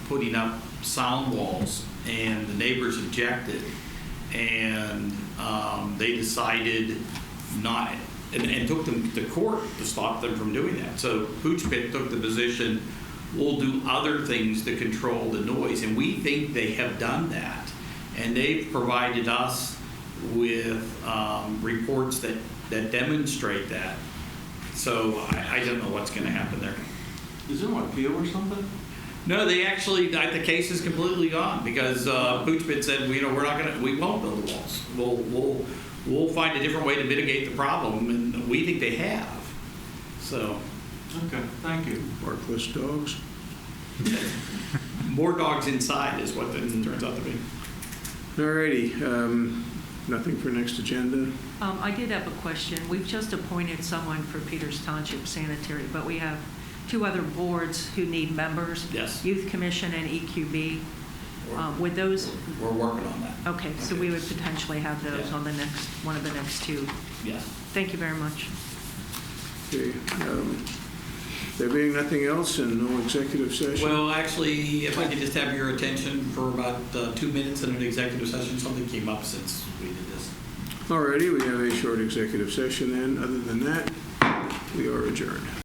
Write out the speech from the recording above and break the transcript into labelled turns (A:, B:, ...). A: putting up sound walls, and the neighbors objected, and um, they decided not, and, and took them to court to stop them from doing that. So Pooch Pit took the position, we'll do other things to control the noise, and we think they have done that. And they've provided us with um, reports that, that demonstrate that. So I, I don't know what's going to happen there.
B: Is there an appeal or something?
A: No, they actually, I- the case is completely gone because uh, Poochbit said, you know, we're not going to, we won't build the walls. We'll, we'll, we'll find a different way to mitigate the problem, and we think they have. So,
B: Okay, thank you.
C: Barkless dogs?
A: more dogs inside is what it turns out to be.
C: Alrighty, um, nothing for next agenda?
D: Um, I did have a question. We've just appointed someone for Peters Township Sanitary, but we have two other boards who need members.
A: Yes.
D: Youth Commission and E EQB. Uh, Would those,
A: We're working on that.
D: okay, so we would potentially have those
A: Yeah.
D: on the next, one of the next two.
A: Yes.
D: Thank you very much.
C: Okay, um, there being nothing else and no executive session?
A: Well, actually, if I could just have your attention for about uh, two minutes in an executive session, something came up since we did this.
C: Alrighty, we have a short executive session then. Other than that, we are adjourned.